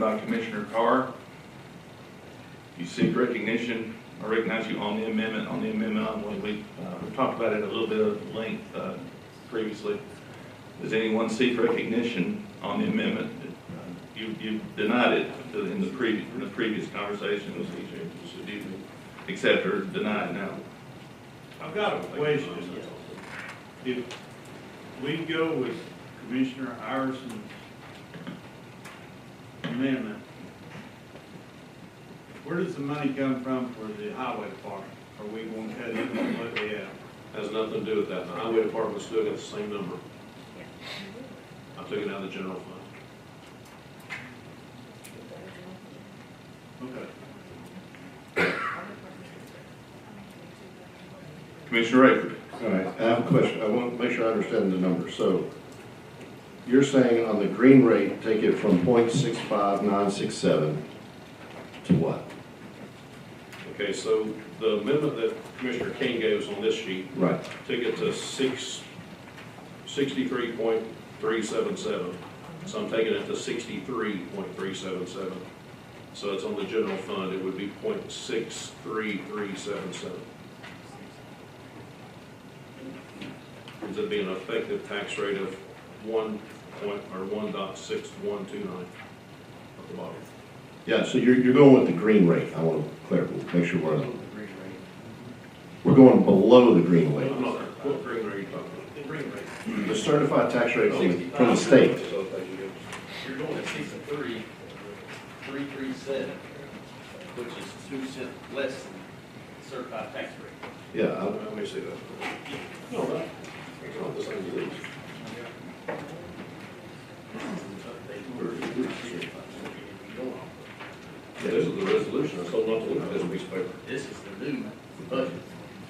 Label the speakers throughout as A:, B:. A: by Commissioner Carr. You seek recognition, I recognize you on the amendment, on the amendment, on what we, uh, we talked about it a little bit of length, uh, previously. Does anyone seek recognition on the amendment? Uh, You, you denied it in the previous, in the previous conversation, it was easier, should you accept or deny it now?
B: I've got a question. If we go with Commissioner Iverson's amendment, where does the money come from for the highway department? Are we gonna cut it completely out?
C: Has nothing to do with that. The highway department's still got the same number. I took it out of the general fund.
B: Okay.
A: Commissioner Rayford,
D: All right, I have a question. I want to make sure I understand the number. So you're saying on the green rate, take it from point six five nine six seven to what?
C: Okay, so the amendment that Commissioner King gave us on this sheet
D: Right.
C: took it to six, sixty-three point three seven seven. So I'm taking it to sixty-three point three seven seven. So it's on the general fund, it would be point six three three seven seven. Ends up being an effective tax rate of one point, or one dot six one two nine at the bottom.
D: Yeah, so you're, you're going with the green rate. I want to clarify, make sure we're on. We're going below the green rate.
C: I'm not, what green are you talking about?
E: The green rate,
D: The certified tax rate on the- from the state.
E: you're going to sixty-three, three, three, seven, which is two cent less than certified tax rate.
D: Yeah, I-
C: Let me see that. No, that, it's not the same as these. Yeah, This is the resolution, I told not to look at this piece of paper.
E: This is the new budget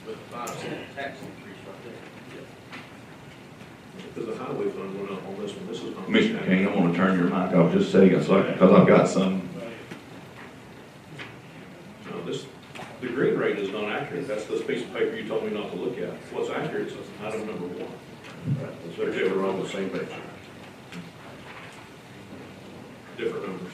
E: with the five cent tax increase right there.
C: Because the highway fund went up on this one, this is not.
A: Commissioner King, I want to turn your mic off just a second, so, because I've got some.
C: No, this, the green rate is not accurate, that's this piece of paper you told me not to look at. What's accurate is item number one.
D: Right, so we're on the same page.
C: different numbers.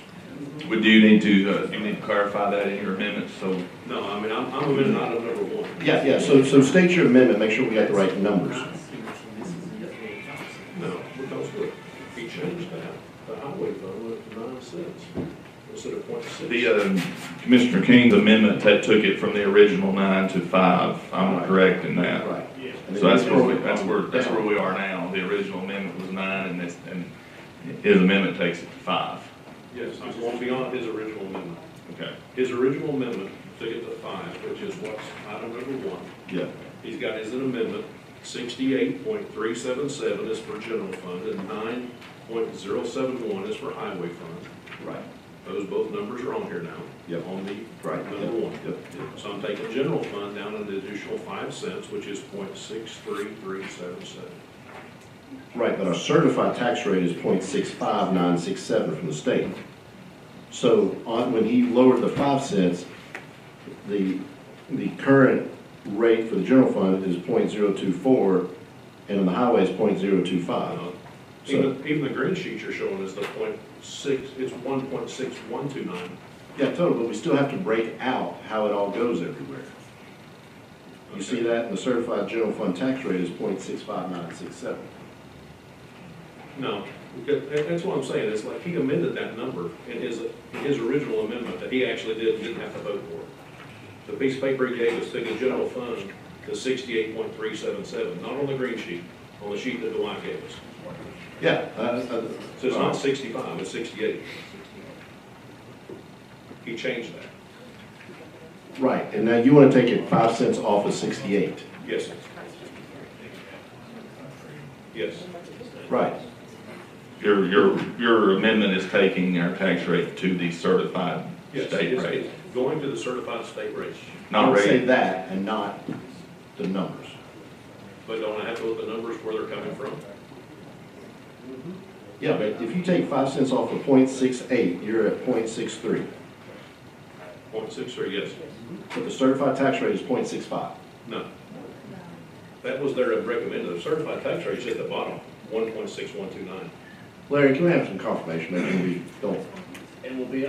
A: Would you need to, uh, do you need to clarify that in your amendment, so?
C: No, I mean, I'm, I'm amending item number one.
D: Yeah, yeah, so, so state your amendment, make sure we got the right numbers.
C: No, because look, he changed that, the highway fund went up to nine cents instead of point six.
A: The, uh, Commissioner King's amendment that took it from the original nine to five, I'm correct in that.
D: Right.
B: Yeah.
D: And then
A: So that's
D: you
A: where,
D: just-
A: we- that's where, that's where we are now, the original amendment was nine, and this, and his amendment takes it to five.
C: Yes, I'm going beyond his original amendment.
A: Okay.
C: His original amendment took it to five, which is what's item number one.
D: Yeah,
C: He's got his amendment, sixty-eight point three seven seven is for general fund, and nine point zero seven one is for highway fund.
D: right,
C: Those both numbers are on here now.
D: Yep.
C: On the,
D: right.
C: number one.
D: Yep,
C: So I'm taking general fund down an additional five cents, which is point six three three seven seven.
D: Right, but our certified tax rate is 0.65967 from the state. So on, when he lowered the five cents, the, the current rate for the general fund is 0.024, and on the highway is 0.025.
C: Uh, Even, even the green sheet you're showing is the point six, it's one point six one two nine.
D: Yeah, total, but we still have to break out how it all goes everywhere. You see that, and the certified general fund tax rate is 0.65967.
C: No, that- that- that's what I'm saying, it's like he amended that number in his, in his original amendment that he actually did, didn't have to vote for. The piece of paper he gave us took the general fund to sixty-eight point three seven seven, not on the green sheet, on the sheet that Dwight gave us.
D: Yeah, uh, I, I.
C: So it's not sixty-five, it's sixty-eight. He changed that,
D: Right, and now you wanna take it five cents off of sixty-eight.
C: yes. Yes,
D: Right.
A: Your, your, your amendment is taking our tax rate to the certified
C: yes,
A: state
C: it's
A: rate,
C: it's going to the certified state rate,
A: not
D: Don't Say
A: rate.
D: that and not the numbers.
C: but don't I have to look at the numbers where they're coming from?
D: Yeah, but if you take five cents off of point six eight, you're at point six three.
C: Point six or yes?
D: But the certified tax rate is point six five.
C: No. That was their recommended, the certified tax rate's at the bottom, one point six one two nine.
D: Larry, can we have some confirmation that we don't and will be